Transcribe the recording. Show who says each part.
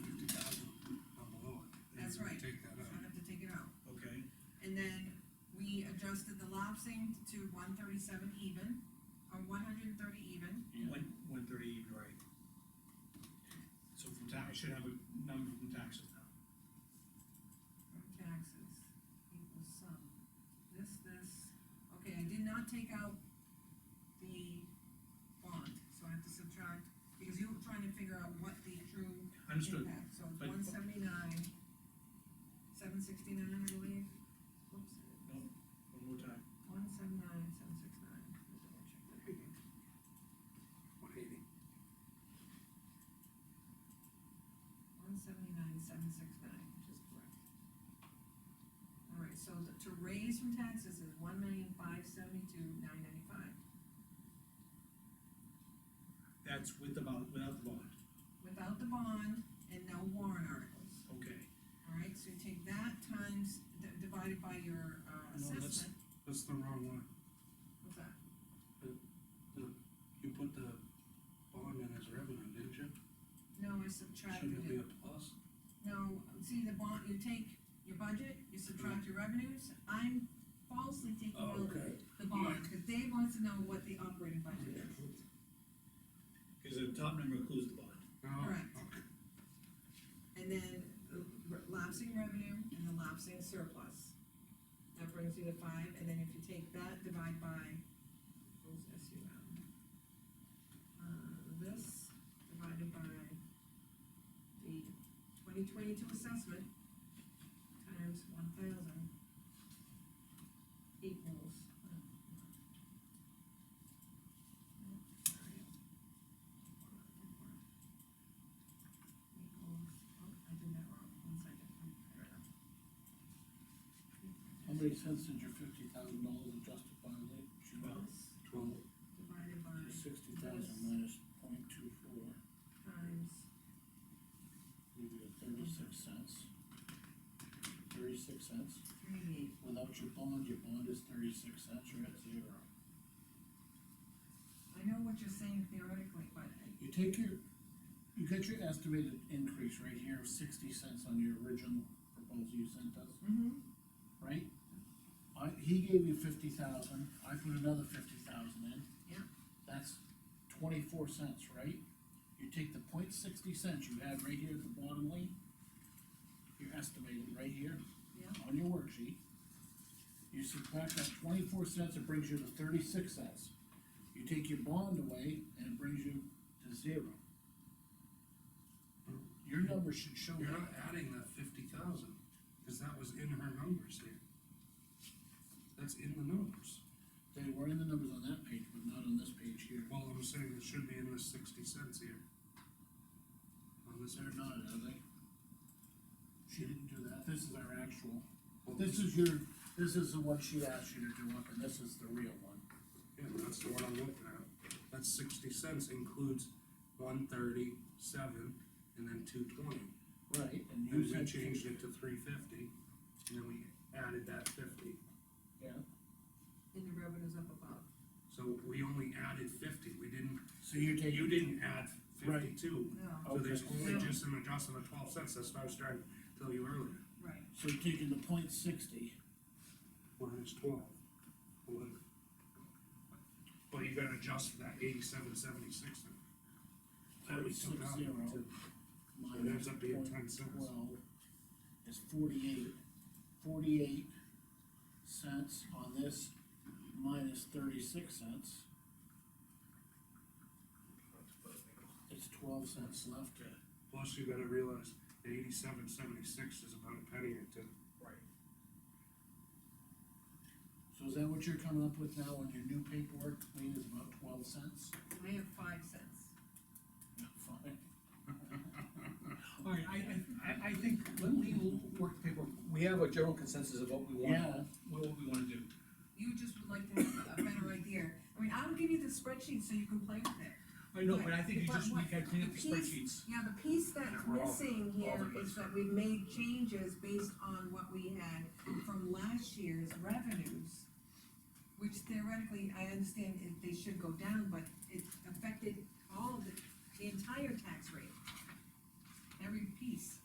Speaker 1: lapsing to one thirty-seven even, or one hundred and thirty even.
Speaker 2: One, one thirty even, right? So from tax, I should have a number from taxes now.
Speaker 1: From taxes equals sum, this, this, okay, I did not take out the bond, so I have to subtract, because you were trying to figure out what the true
Speaker 2: Understood,
Speaker 1: impact, so
Speaker 2: but-
Speaker 1: one seventy-nine, seven sixty-nine, I believe. Oops,
Speaker 2: one more time.
Speaker 1: one seven nine, seven six nine, double check that again.
Speaker 3: One eighty.
Speaker 1: One seventy-nine, seven six nine, which is correct. All right, so the- to raise from taxes is one million five seventy-two nine ninety-five,
Speaker 2: That's with the bond, without the bond,
Speaker 1: without the bond and no warrant articles.
Speaker 2: okay.
Speaker 1: All right, so you take that times, d- divided by your, uh,
Speaker 3: No, that's-
Speaker 1: assessment,
Speaker 3: That's the wrong one,
Speaker 1: what's that?
Speaker 3: you put the bond in as revenue, didn't you?
Speaker 1: No, I
Speaker 3: Shouldn't it
Speaker 1: subtracted
Speaker 3: be
Speaker 1: it.
Speaker 3: a plus?
Speaker 1: No, see, the bond, you take your budget, you subtract your revenues, I'm falsely taking
Speaker 3: Oh,
Speaker 1: out
Speaker 3: okay.
Speaker 1: the bond, because Dave wants to know what the operating budget is.
Speaker 2: Cause the top number includes the bond.
Speaker 3: Oh,
Speaker 1: Correct.
Speaker 3: okay.
Speaker 1: And then the r- lapsing revenue and the lapsing surplus. That brings you to five, and then if you take that, divide by, what's S U M? Uh, this divided by the twenty twenty-two assessment times one thousand equals. uh, uh, sorry. Equals, oh, I did that wrong, one second.
Speaker 4: How many cents did your fifty thousand dollars adjusted by late July?
Speaker 1: Equals
Speaker 3: Twelve,
Speaker 1: Divided by
Speaker 4: Sixty thousand minus point two four,
Speaker 1: times,
Speaker 4: leave you at thirty-six cents. Thirty-six cents,
Speaker 1: three,
Speaker 4: without your bond, your bond is thirty-six cents, you're at zero.
Speaker 1: I know what you're saying theoretically, but I-
Speaker 4: You take your, you get your estimated increase right here of sixty cents on your original proposal you sent us,
Speaker 1: Mm-hmm.
Speaker 4: right? I, he gave you fifty thousand, I put another fifty thousand in.
Speaker 1: Yeah.
Speaker 4: That's twenty-four cents, right? You take the point sixty cents you had right here at the bottom line, you're estimating right here
Speaker 1: yeah,
Speaker 4: on your worksheet. You subtract that twenty-four cents, it brings you to thirty-six cents. You take your bond away, and it brings you to zero. Your number should show
Speaker 3: you're
Speaker 4: that,
Speaker 3: not adding that fifty thousand, cause that was in her numbers here. That's in the numbers,
Speaker 4: they were in the numbers on that page, but not on this page here.
Speaker 3: well, I'm saying it should be in the sixty cents here. On this,
Speaker 4: They're not, are they? She didn't do that, this is our actual,
Speaker 3: well,
Speaker 4: this is your, this is the one she asked you to do up, and this is the real one.
Speaker 3: yeah, that's the one I'm looking at, that's sixty cents includes one thirty-seven and then two twenty.
Speaker 4: Right,
Speaker 3: And
Speaker 4: and
Speaker 3: we
Speaker 4: you said.
Speaker 3: changed it to three fifty, and then we added that fifty,
Speaker 4: Yeah,
Speaker 1: and the revenue's up above.
Speaker 3: so we only added fifty, we didn't,
Speaker 4: so you're taking.
Speaker 3: you didn't add fifty-two.
Speaker 1: No.
Speaker 3: So there's
Speaker 4: Okay.
Speaker 3: only just an adjustment of twelve cents, that's what I was trying to tell you earlier.
Speaker 1: Right,
Speaker 4: So you're taking the point sixty,
Speaker 3: Minus twelve. Well, you gotta adjust for that eighty-seven seventy-six, That we
Speaker 4: thirty-six
Speaker 3: took out
Speaker 4: zero,
Speaker 3: too. it
Speaker 4: minus
Speaker 3: ends up being
Speaker 4: point
Speaker 3: 10 cents.
Speaker 4: twelve, is forty-eight. Forty-eight cents on this, minus thirty-six cents. It's twelve cents left to.
Speaker 3: plus you gotta realize the eighty-seven seventy-six is about a penny or two.
Speaker 4: So is that what you're coming up with now on your new paperwork, Lean, is about twelve cents?
Speaker 1: I have five cents.
Speaker 4: Fine.
Speaker 2: All right, I, I, I, I think, let me work the paper, we have a general consensus of what we want,
Speaker 4: Yeah,
Speaker 2: what we wanna do.
Speaker 1: You just would like to have a better idea. I mean, I'll give you the spreadsheet so you can play with it.
Speaker 2: I know, but I think you
Speaker 1: But
Speaker 2: just, we
Speaker 1: what-
Speaker 2: gotta clean up the
Speaker 1: the piece-
Speaker 2: spreadsheets.
Speaker 1: Yeah, the piece that's
Speaker 3: We're all-
Speaker 1: missing
Speaker 3: all
Speaker 1: here
Speaker 3: the
Speaker 1: is
Speaker 3: best.
Speaker 1: that we've made changes based on what we had from last year's revenues, which theoretically, I understand it, they should go down, but it affected all of the, the entire tax rate. Every piece.